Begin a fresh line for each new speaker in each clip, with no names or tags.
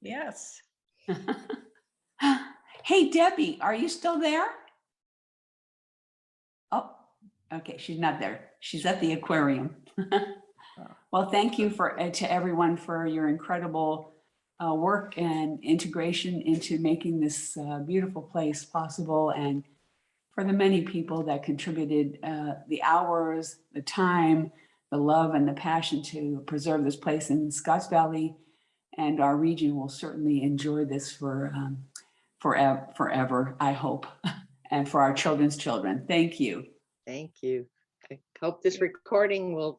Yes.
Hey Debbie, are you still there? Oh, okay, she's not there. She's at the aquarium. Well, thank you for, uh, to everyone for your incredible uh, work and integration into making this uh, beautiful place possible and for the many people that contributed uh, the hours, the time, the love and the passion to preserve this place in Scotts Valley. And our region will certainly enjoy this for um, forever, forever, I hope, and for our children's children. Thank you.
Thank you. I hope this recording will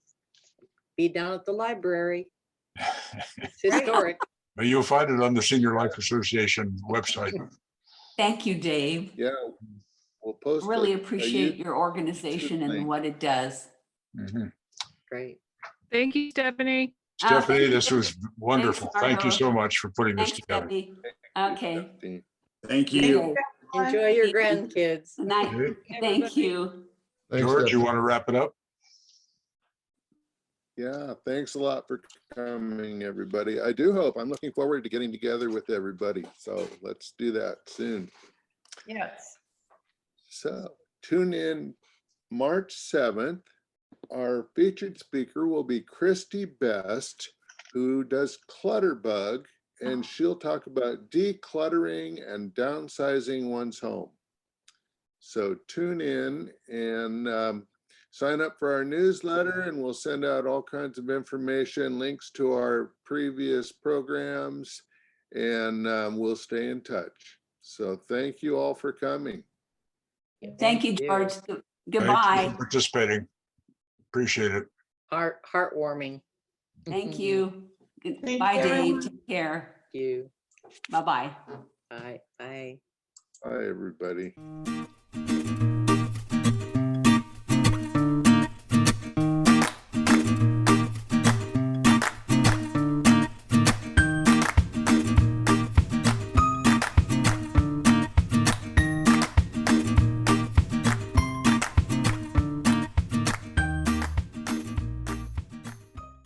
be down at the library. It's historic.
But you'll find it on the Senior Life Association website.
Thank you, Dave.
Yeah, we'll post.
Really
it. Are you-
appreciate your organization and
thing.
what it does. Oh,
Mhm.
Great.
Thank you, Stephanie.
Uh,
Stephanie, this was wonderful.
Margo.
Thank you so much for putting this
Thanks,
together.
Debbie.
Thank you,
Okay.
Stephanie.
Thank you.
Enjoy your grandkids.
Night.
Okay.
Thank
Everybody.
you.
Thanks,
George, you
Stephanie.
want to wrap it up?
Yeah, thanks a lot for coming, everybody. I do hope, I'm looking forward to getting together with everybody. So let's do that soon.
Yes.
So tune in March 7th. Our featured speaker will be Christy Best, who does Clutterbug, and she'll talk about decluttering and downsizing one's home. So tune in and um, sign up for our newsletter, and we'll send out all kinds of information, links to our previous programs, and um, we'll stay in touch. So thank you all for coming.
Thank you, George.
Thank you for
Goodbye.
Participating. Appreciate it.
Heart, heartwarming.
Thank you. Good-
Thank
Bye,
you,
Dave.
everyone.
Take care.
You.
Bye-bye.
Bye, bye.
Hi, everybody.